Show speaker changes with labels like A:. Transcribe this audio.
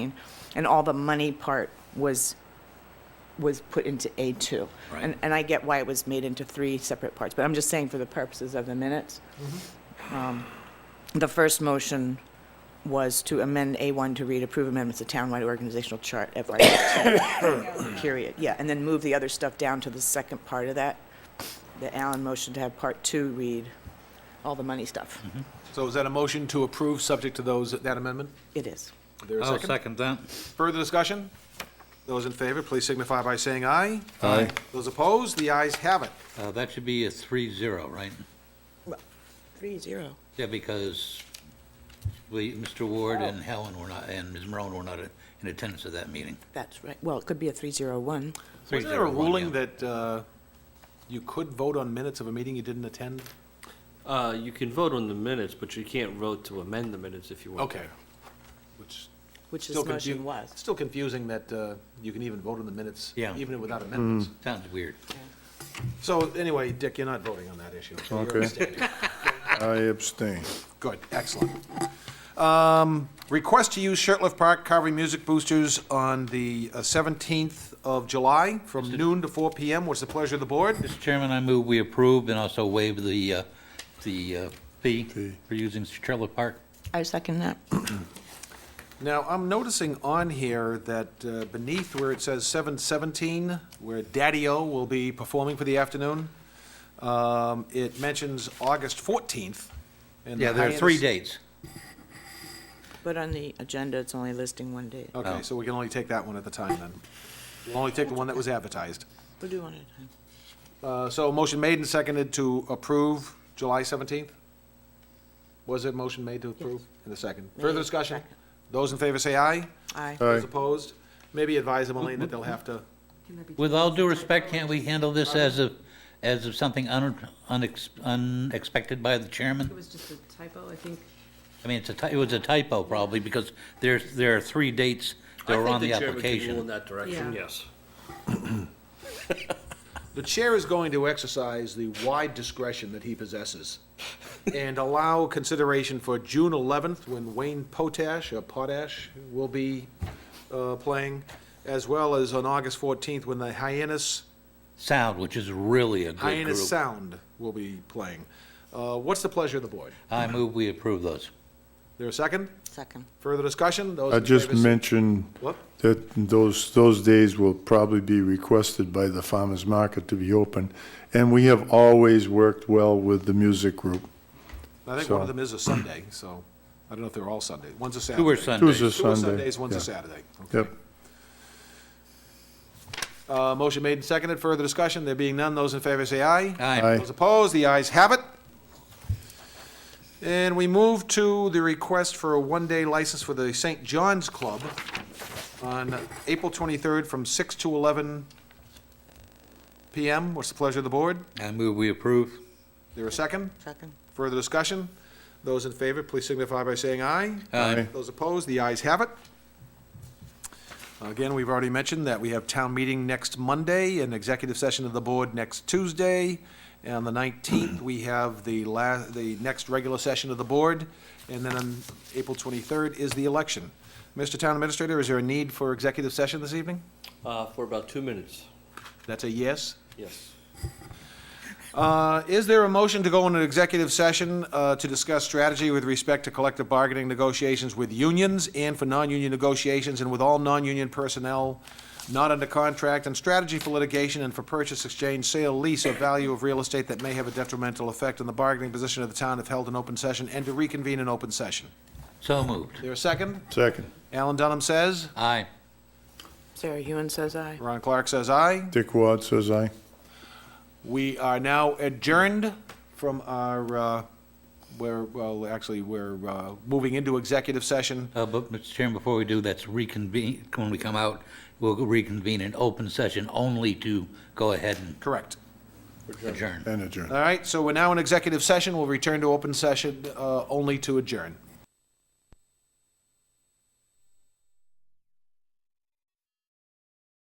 A: and all the money part was, was put into A2.
B: Right.
A: And, and I get why it was made into three separate parts, but I'm just saying for the purposes of the minutes. um, The first motion was to amend A1 to read approve amendments to townwide organizational chart FY15, period, yeah, and then move the other stuff down to the second part of that, the Allen motion to have part two read all the money stuff.
C: So is that a motion to approve, subject to those, that amendment?
A: It is.
C: Is there a
B: I'll
C: second?
B: second that.
C: Further discussion? Those in favor, please signify by saying aye.
D: Aye.
C: Those opposed, the ayes have it.
B: Uh, That should be a three-zero, right?
A: Three zero.
B: Yeah, because we, Mr. Ward
C: Oh.
B: and Helen were not, and Ms. Marone were not in attendance at that meeting.
A: That's right. Well, it could be a 301.
C: Wasn't there a
B: 3-0, one,
C: ruling
B: yeah.
C: that uh, you could vote on minutes of a meeting you didn't attend?
E: Uh, you can vote on the minutes, but you can't vote to amend the minutes if you want.
C: Okay. Which
A: Which
C: still
A: this
C: confu-
A: motion was.
C: Still confusing that uh, you can even vote on the minutes,
B: Yeah.
C: even without amendments.
D: Hmm.
B: Sounds weird.
C: So anyway, Dick, you're not voting on that issue. so you're
D: Okay.
C: abstaining.
D: I abstain.
C: Good, excellent. Um, Request to use Shirtliff Park Carvery Music Boosters on the uh, 17th of July from noon to 4 PM. What's the pleasure of the board?
B: Mr. Chairman, I move we approve and also waive the, uh, the uh, fee
D: Fee.
B: for using Trailer Park.
A: I second that.
C: Now, I'm noticing on here that uh, beneath where it says 7:17, where Daddy-O will be performing for the afternoon, um, it mentions August 14th. and the
B: Yeah, there are three
C: hiatus-
B: dates.
A: But on the agenda, it's only listing one date.
C: Okay, so we can only take that one at the time then. We'll only take the one that was advertised.
A: We'll do one at a time.
C: Uh, So motion made and seconded to approve July 17th? Was it motion made to approve in the second? Further discussion?
A: Second.
C: Those in favor say aye.
A: Aye.
C: Those
D: Aye.
C: opposed? Maybe advise them, Elaine, that they'll have to,
B: With all due respect, can't we handle this as of, as of something un- unex- unexpected by the
F: It
B: chairman?
F: was just a typo, I think.
B: I mean, it's a, ty- it was a typo probably, because there's, there are three dates that were on the
E: I think the chairman can rule
B: application.
E: in that direction,
F: Yeah.
E: yes.
C: the chair is going to exercise the wide discretion that he possesses and allow consideration for June 11th, when Wayne Potash, or Potash, will be uh, playing, as well as on August 14th, when the Hyannis
B: Sound, which is really a good
C: Hyannis
B: group.
C: Sound will be playing. Uh, What's the pleasure of the board?
B: I move we approve those.
C: There a second?
A: Second.
C: Further discussion? Those
D: I
C: in
D: just
C: favor say-
D: mentioned
C: What?
D: that those, those days will probably be requested by the farmer's market to be open. And we have always worked well with the music group.
C: I think one of
D: so-
C: them is a Sunday, so I don't know if they're all Sunday. One's a Saturday.
B: Two are
D: Tuesday,
B: Sundays.
C: Two are
D: Sunday.
C: Sundays, one's a
D: yeah.
C: Saturday. Okay.
D: Yep.
C: Uh, Motion made and seconded. Further discussion? There being none, those in favor say aye.
B: Aye.
D: Aye.
C: Those opposed, the ayes have it. And we move to the request for a one-day license for the St. John's Club on April 23rd from 6 to 11 PM. What's the pleasure of the board?
B: I move we approve.
C: There a second?
A: Second.
C: Further discussion? Those in favor, please signify by saying aye.
B: Aye.
C: Those opposed, the ayes have it. Again, we've already mentioned that we have town meeting next Monday, an executive session of the board next Tuesday. And on the 19th, we have the la, the next regular session of the board. And then on April 23rd is the election. Mr. Town Administrator, is there a need for executive session this evening?
E: Uh, for about two minutes,
C: That's a yes?
E: yes.
C: Uh, Is there a motion to go into executive session uh, to discuss strategy with respect to collective bargaining negotiations with unions and for non-union negotiations and with all non-union personnel not under contract, and strategy for litigation and for purchase, exchange, sale, lease, or value of real estate that may have a detrimental effect on the bargaining position of the town if held in open session, and to reconvene in open session?
B: So moved.
C: There a second?
D: Second.
C: Alan Dunham says.
B: Aye.
A: Sarah Hewen says aye.
C: Ron Clark says aye.
D: Dick Ward says aye.
C: We are now adjourned from our, uh, we're, well, actually, we're uh, moving into executive session.
B: Uh, But, Mr. Chairman, before we do, that's reconvene, when we come out, we'll reconvene in open session only to go ahead and
C: Correct.
B: adjourn.
D: And adjourn.
C: All right, so we're now in executive session. We'll return to open session uh, only to adjourn.